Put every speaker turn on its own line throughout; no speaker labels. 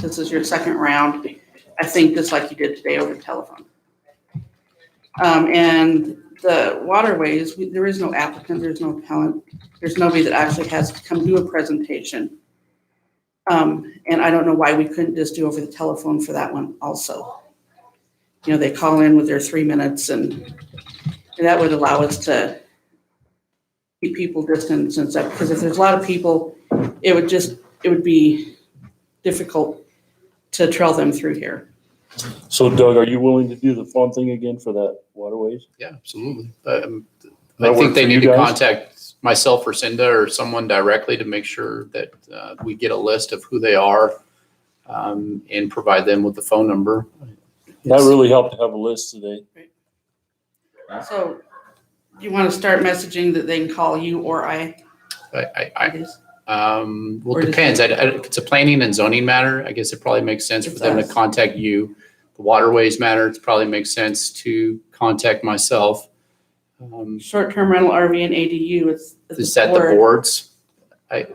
This is your second round. I think just like you did today over the telephone. Um, and the waterways, we- there is no applicant, there's no appellant, there's nobody that actually has to come do a presentation. Um, and I don't know why we couldn't just do over the telephone for that one also. You know, they call in with their three minutes and and that would allow us to keep people distance and stuff, because if there's a lot of people, it would just, it would be difficult to trail them through here.
So Doug, are you willing to do the phone thing again for that waterways?
Yeah, absolutely. Um,
That
I
work
think they
for you
need to
guys?
contact myself or Cinda or someone directly to make sure that uh, we get a list of who they are um, and provide them with the phone number.
That really helped to have a list today.
So you want to start messaging that they can call you or I?
I,
I
I,
just-
I, um, well,
Or
it
does-
depends. I, I, if it's a planning and zoning matter, I guess it probably makes sense for
It's
them to
us.
contact you. The waterways matter, it probably makes sense to contact myself. Um,
Short-term rental RV and ADU, it's. it's
Is that the boards? I,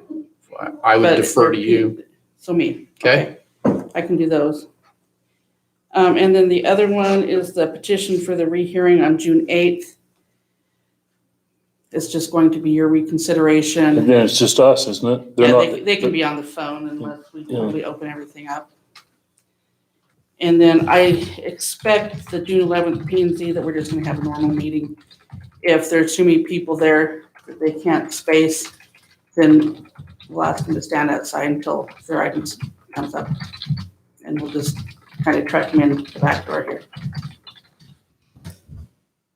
I would
but
defer to
it's-
you.
So me.
Okay.
Okay. I can do those. Um, and then the other one is the petition for the rehearing on June eighth. It's just going to be your
And
reconsideration.
then it's just us, isn't it? They're
Yeah,
not.
they, they can be on the phone unless we,
Yeah.
we open everything up. And then I expect the June eleventh P and Z that we're just gonna have a normal meeting. If there's too many people there that they can't space, then we'll ask them to stand outside until their items comes up. And we'll just kind of truck them in the back door here.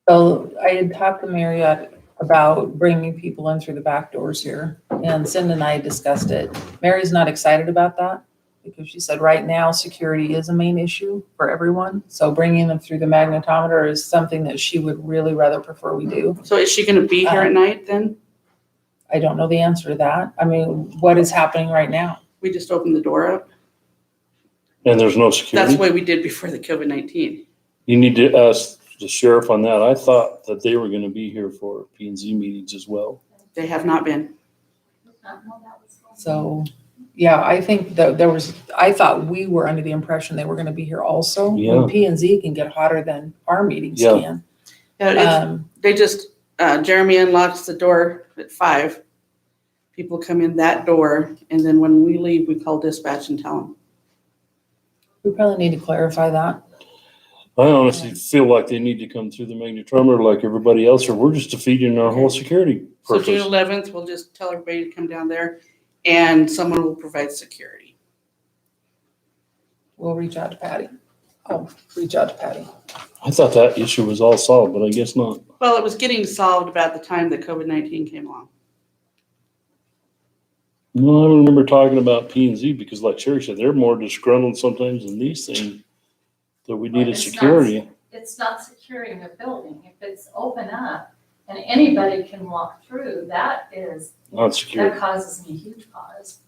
So I had talked to Marriott about bringing people in through the back doors here, and Cindy and I discussed it. Mary's not excited about that, because she said right now, security is a main issue for everyone. So bringing them through the magnetometer is something that she would really rather prefer we do.
So is she gonna be here at night then?
I don't know the answer to that. I mean, what is happening right now?
We just open the door up?
And there's no
That's
security.
the way we did before the COVID nineteen.
You need to ask the sheriff on that. I thought that they were going to be here for P and Z meetings as well.
They have not been.
So, yeah, I think that there was, I thought we were under the impression they were gonna be here also.
Yeah.
P and Z can get hotter than our meetings
Yeah.
can.
Yeah, it's-
Um,
they just, uh, Jeremy unlocks the door at five. People come in that door, and then when we leave, we call dispatch and tell them.
We probably need to clarify that.
I honestly feel like they need to come through the magnetometer like everybody else, or we're just defeating our whole security
So June
purpose.
eleventh, we'll just tell everybody to come down there, and someone will provide security.
We'll reach out to Patty. Oh, reach out to Patty.
I thought that issue was all solved, but I guess not.
Well, it was getting solved about the time that COVID nineteen came along.
No, I remember talking about P and Z because like Sherry said, they're more disgruntled sometimes than these things that we
Well,
needed
it's not-
security.
It's not securing the building. If it's open up and anybody can walk through, that is,
Not secure.
that causes me huge pause.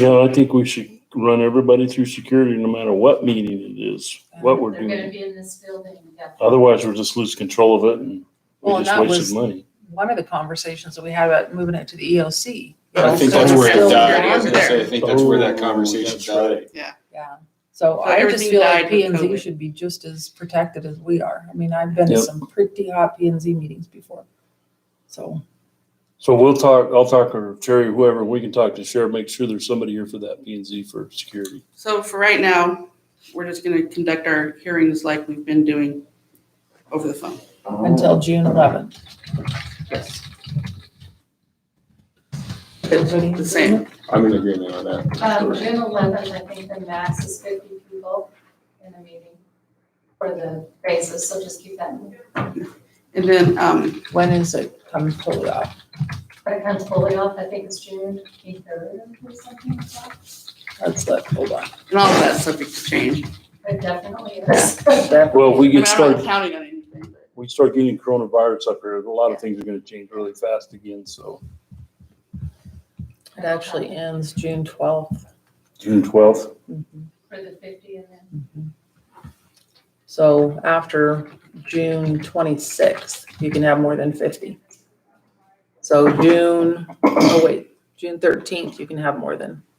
Yeah, I think we should run everybody through security no matter what meeting it is, what we're
They're gonna
doing.
be in this building indefinitely.
Otherwise, we'll just lose control of it and we
Well, and
just
that
wasted
was-
money.
One of the conversations that we had about moving it to the E EOC.
I think
So
that's
it's
where
still
it died. I
on
was gonna
there.
say, I think that's where that
Oh,
conversation
that's
died.
right.
Yeah. So
So
I just
everything
feel
died
like
with
P and Z
COVID.
should be just as protected as we are. I mean, I've been to
Yep.
some pretty hot P and Z meetings before. So,
So we'll talk, I'll talk or Terry, whoever, we can talk to sheriff, make sure there's somebody here for that P and Z for security.
So for right now, we're just gonna conduct our hearings like we've been doing over the phone.
until June eleventh.
Yes.
Everybody in
The same.
agreement?
I'm in agreement on that.
Um, June eleventh, I think the max is fifty people in a meeting for the basis, so just keep that in mind.
And then, um,
When is it coming fully off?
But it comes fully off, I think it's June twenty-third or something like that.
Let's look, hold on.
and all of that subject to change.
But definitely is.
Well, if we
I mean,
get
I'm not
started,
counting on anything, but-
we start getting coronavirus up here, a lot of things are gonna change really fast again, so.
It actually ends June twelfth.
June twelfth.
For the fifty and then
So after June twenty-sixth, you can have more than fifty. So June, oh wait, June thirteenth, you can have more than